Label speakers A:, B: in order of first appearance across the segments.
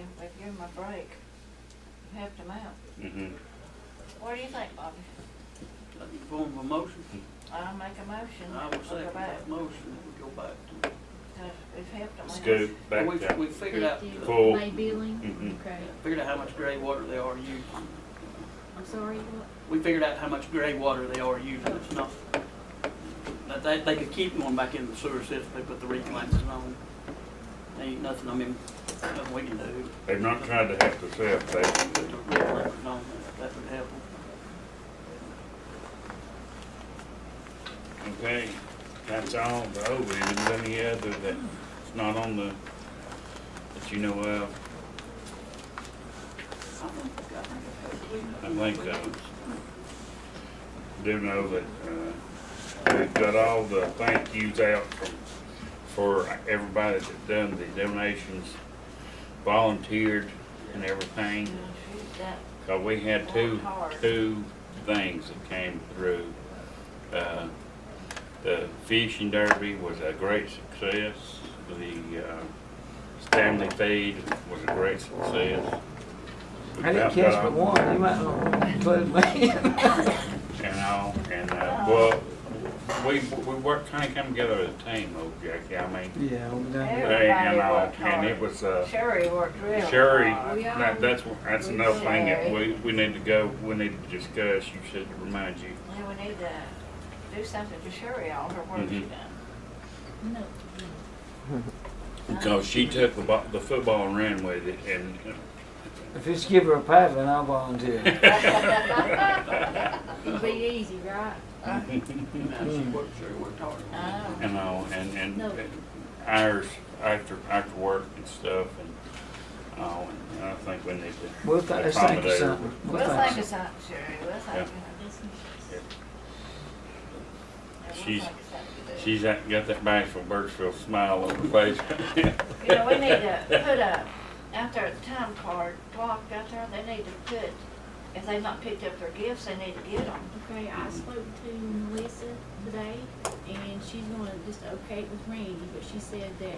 A: a break, you helped him out.
B: Mm-hmm.
A: What do you think, Bobby?
C: Like the form of a motion,
A: I'll make a motion,
C: I
A: that
C: will
A: we
C: second
A: go back,
C: that motion, that we go back to.
A: because we've helped him.
B: Let's
A: out.
B: go
C: Well,
B: back down.
C: We, we figured out,
D: Fifty
C: the-
B: Full.
D: May billing,
B: Mhm.
D: okay,
C: figured out how much gray water they are using.
D: I'm sorry, what?
C: We figured out how much gray water they are using, it's not, but they, they could keep going back in the sewer system, if they put the reclamation on. Ain't nothing, I mean, nothing we can do.
B: They've not tried to hack us up, they,
C: Put the reclamation on, that would help.
B: okay, that's all the over, is there any other that's not on the, that you know of?
C: I think, I think.
B: I think that was- do know that, uh, we've got all the thank yous out from, for everybody that done the donations, volunteered and
A: Yeah,
B: everything.
A: she's got-
B: Cause we had two,
A: Worked hard.
B: two things that came through. Uh, The fishing derby was a great success. The uh, Stanley feed was a great success. We
E: I didn't
B: about
E: catch
B: got
E: but
B: all-
E: one, you might oh, want to include me.
B: And all, and, uh, well, we, we worked, kinda come together as a team, old Jackie, I mean.
E: Yeah, we'll be done here.
B: they and all,
A: worked
B: And
A: hard.
B: it was, uh,
A: Sherry worked real hard.
B: Sherry,
D: We
B: that-
D: all-
B: that's, that's
D: we
B: another thing that
A: all-
B: we, we need to go, we need to discuss, you said, to remind you.
A: Yeah, we need to do something to Sherry, all her work she
B: Mhm.
A: done.
D: No,
B: Because she took the, bo- the football and ran with it, and
E: If you just give her a paddling, I'll volunteer.
D: it'd be easy, right?
C: Now, she worked, sure worked hard.
A: I know.
B: and all, and and
D: No.
B: hours after after work and stuff, and all. And I think we need to.
E: We'll think, let's think of
B: accommodate her.
E: something.
A: We'll think of
E: something.
A: something, Sherry, we'll think of it. Yeah, we'll
B: She's-
A: think of something to do.
B: She's act- got that bashful Birchville smile on her face.
A: You know, we need to put a, out there at the time card, block out there, they need to put, if they've not picked up their gifts, they need to get them.
D: Okay, I spoke to Melissa today, and she's gonna just okay it with Randy, but she said that,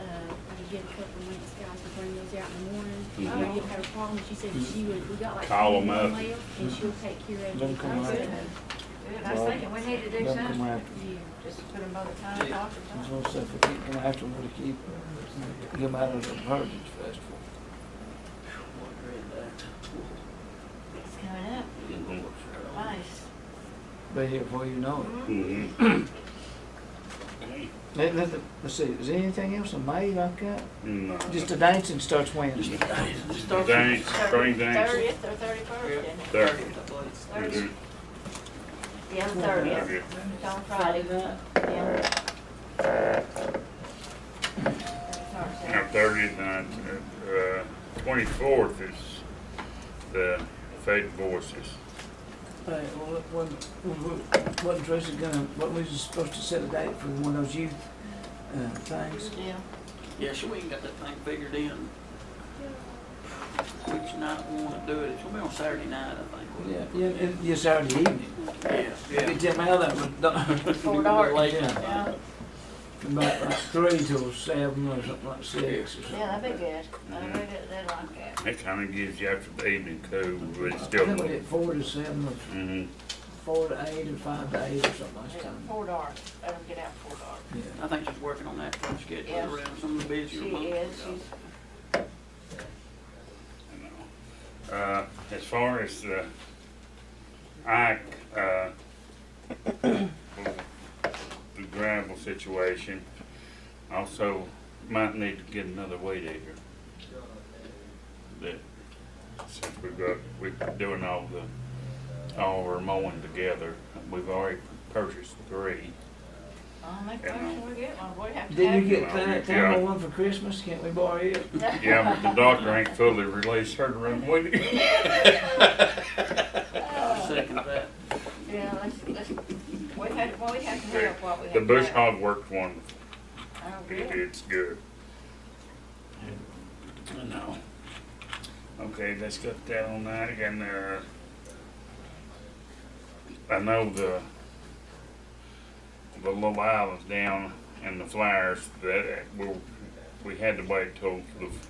D: uh, I could get a couple of weeks, guys, to bring those out in the morning. I
B: Mhm.
D: already had a problem, she said she would, we got like.
B: Call
D: 20
B: them up.
D: left, And she'll take care of it.
E: Don't come
D: I said,
A: out. Dude, I was
E: Well,
A: thinking, we need to do
E: Don't come
A: something,
E: after me.
D: Yeah.
A: just put them by the time clock or
E: There's
A: something.
E: no stuff we keep them after we keep Get them out of the Heritage Festival.
A: It's coming up,
B: Mm-hmm.
A: nice.
E: Be here before you know it.
A: Mhm.
B: Mhm. Okay.
E: Let, let, the- let's see, is there anything else in May like that?
B: No.
E: Just the dancing starts Wednesday.
C: Just start from
B: Dance, spring dance.
A: Thirtieth or thirty-first, isn't it?
B: There.
C: thirty, I
A: Thirty,
C: believe.
A: yeah, thirtieth,
B: Okay.
A: it's on Friday, yeah. That's
B: Now,
A: ours,
B: thirtieth and, uh, twenty-fourth is the Faith Voices.
E: Hey, well, what, what, what dress is gonna, what was it supposed to set a date for one of those youth, uh, things?
A: yeah.
C: Yeah, sure, we ain't got that thing figured in. Which night we wanna do it, it's gonna be on Saturday night, I think. wouldn't
E: Yeah,
C: it?
E: yeah, it- yeah, Saturday evening.
C: Yeah,
E: You tell me how that would,
C: yeah.
A: Before dark.
C: Late.
A: Yeah,
E: about like three till seven or something like six or something.
A: yeah, that'd be good, that'd be good, they'd like that.
B: That kinda gives you after the evening cool, but it's
E: I
B: still.
E: think we did four to seven, or
B: Mhm.
E: four to eight, or five to eight, or something like
A: Yeah,
E: that.
A: four dark, let them get out four dark.
E: Yeah.
C: I think she's working on that, trying to schedule
A: Yeah.
C: around some of the
A: She
C: busier months.
A: is, she's,
B: Uh, as far as the Ike, uh, the gravel situation, also might need to get another weed eater. That, since we've got, we're doing all the, all our mowing together, we've already purchased three.
A: I'll make a
B: Yeah.
A: motion we get one, we have to.
E: Didn't
A: have
E: you
A: it.
E: get that
B: Yeah.
E: time one for Christmas? Can't we borrow it?
B: Yeah, but the doctor ain't fully released her to run weed eater.
C: I second that.
A: Yeah, let's, let's, we had, well, we have to help what we have.
B: The bush
A: left.
B: hog worked one
A: Oh,
B: It-
A: good.
B: It's good. I know. Okay, let's get that on that again there. I know the, the little islands down and the flyers, that, uh, we, we had to wait till the